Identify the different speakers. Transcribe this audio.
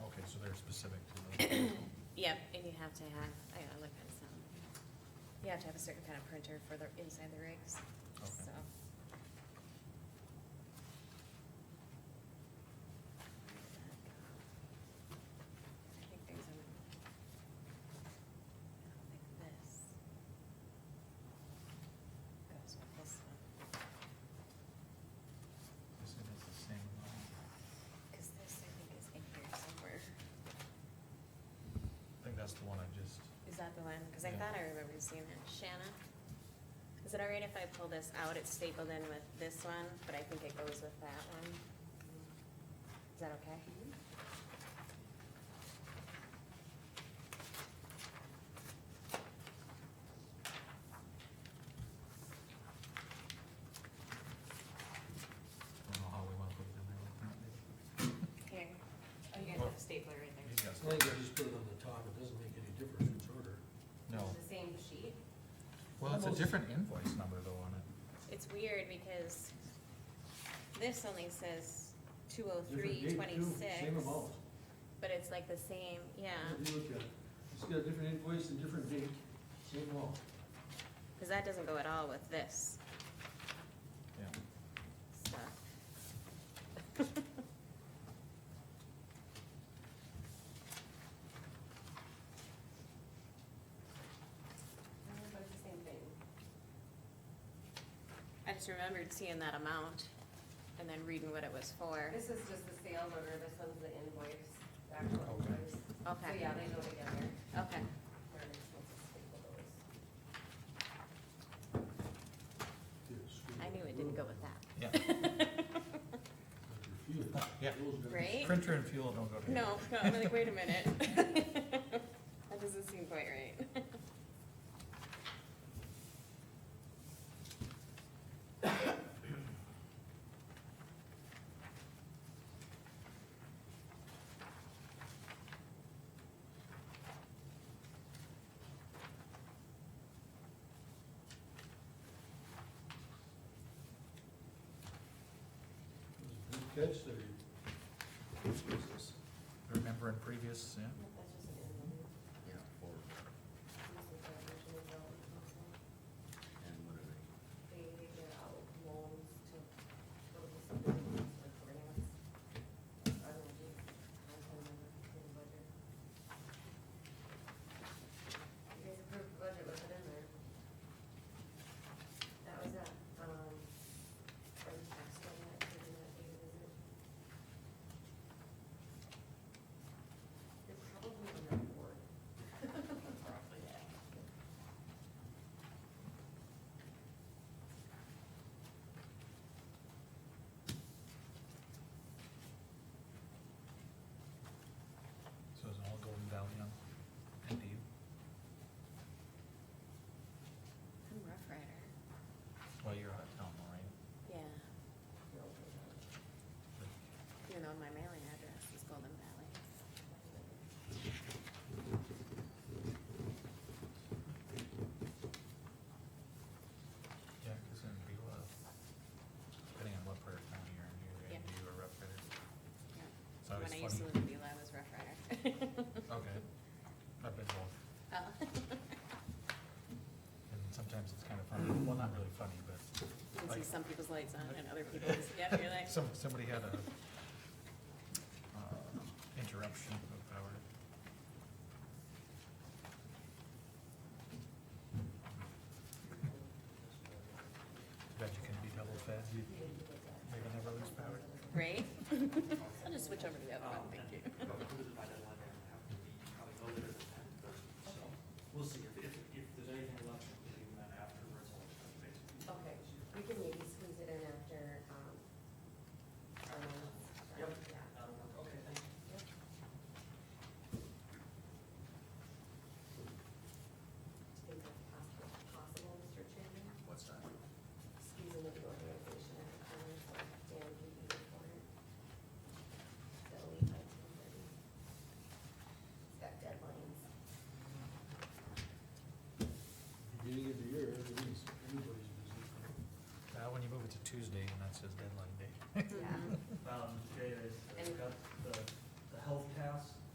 Speaker 1: Yep, and you have to have, I gotta look at some, you have to have a certain kind of printer for the, inside the rigs,
Speaker 2: Okay.
Speaker 1: so. I think there's a. Like this. Goes with this one,
Speaker 2: This one is the same uh, line.
Speaker 1: cause this I think is in here
Speaker 2: I
Speaker 1: somewhere.
Speaker 2: think that's the one I just,
Speaker 1: Is that the one? Cause I
Speaker 2: Yeah.
Speaker 1: thought I remembered seeing it. Shanna? Is it all right if I pull this out? It's stapled in with this one, but I think it goes with that one. Is that okay?
Speaker 2: I don't know how we want to put it in there.
Speaker 1: Here. Oh, you
Speaker 2: What?
Speaker 1: stapler right
Speaker 2: He's got
Speaker 3: I think I just put it on the top, it doesn't make any difference in order.
Speaker 2: No,
Speaker 1: the same sheet?
Speaker 2: well, it's a different invoice number though on it.
Speaker 1: It's weird because this only says two oh
Speaker 3: Different
Speaker 1: three
Speaker 3: date, too,
Speaker 1: twenty-six. uh.
Speaker 3: Same amount.
Speaker 1: But it's like the same, yeah.
Speaker 3: If you look at it, It's got a different invoice and different date, same amount.
Speaker 1: Cause that doesn't go at all with this
Speaker 2: Yeah.
Speaker 1: stuff. I just remembered seeing that amount and then reading what it was for.
Speaker 4: This is just the sales order, this one's the invoice, the actual
Speaker 3: Okay.
Speaker 4: invoice. So
Speaker 1: Okay,
Speaker 4: yeah, they go together.
Speaker 1: okay.
Speaker 4: They're just supposed to staple those.
Speaker 1: I knew it didn't go with
Speaker 2: Yeah.
Speaker 1: that.
Speaker 2: Yeah.
Speaker 1: Right?
Speaker 2: Printer and fuel don't go together.
Speaker 1: No, no, I'm like, wait a minute. That doesn't seem quite right.
Speaker 3: Good catch there.
Speaker 2: Remember in previous, yeah?
Speaker 4: Nope, That's just an invoice.
Speaker 5: Yeah, or,
Speaker 4: This is the original bill.
Speaker 5: and what are they?
Speaker 4: They get out loans to go to some buildings or grants. I don't do, I don't remember the budget. You guys approved the budget, was it in there? That was that, um, from tax one that, did that data visit. You're probably on that board. Probably, yeah.
Speaker 2: So it's all Golden Valley on, and Dave.
Speaker 1: I'm Rough Rider.
Speaker 2: Well, you're out of town, though, right?
Speaker 1: Yeah,
Speaker 4: No, we're not.
Speaker 1: even though my mailing address is Golden Valley.
Speaker 2: Yeah, cause in Beulah, depending on what part of town you're in, you're
Speaker 1: Yeah.
Speaker 2: gonna do a rough rider.
Speaker 1: Yeah.
Speaker 2: It's
Speaker 1: When
Speaker 2: always
Speaker 1: I used to live
Speaker 2: funny.
Speaker 1: in Beulah, I was Rough Rider.
Speaker 2: Okay. I've been both,
Speaker 1: Oh.
Speaker 2: and sometimes it's kinda funny, well, not really funny, but
Speaker 1: You can see
Speaker 2: Like-
Speaker 1: some people's lights on and other people's, yeah, you're like,
Speaker 2: Some, somebody had a, uh, interruption of power. Bet you can be double fed, you, you can never lose power.
Speaker 1: right?
Speaker 4: um,
Speaker 2: Uh,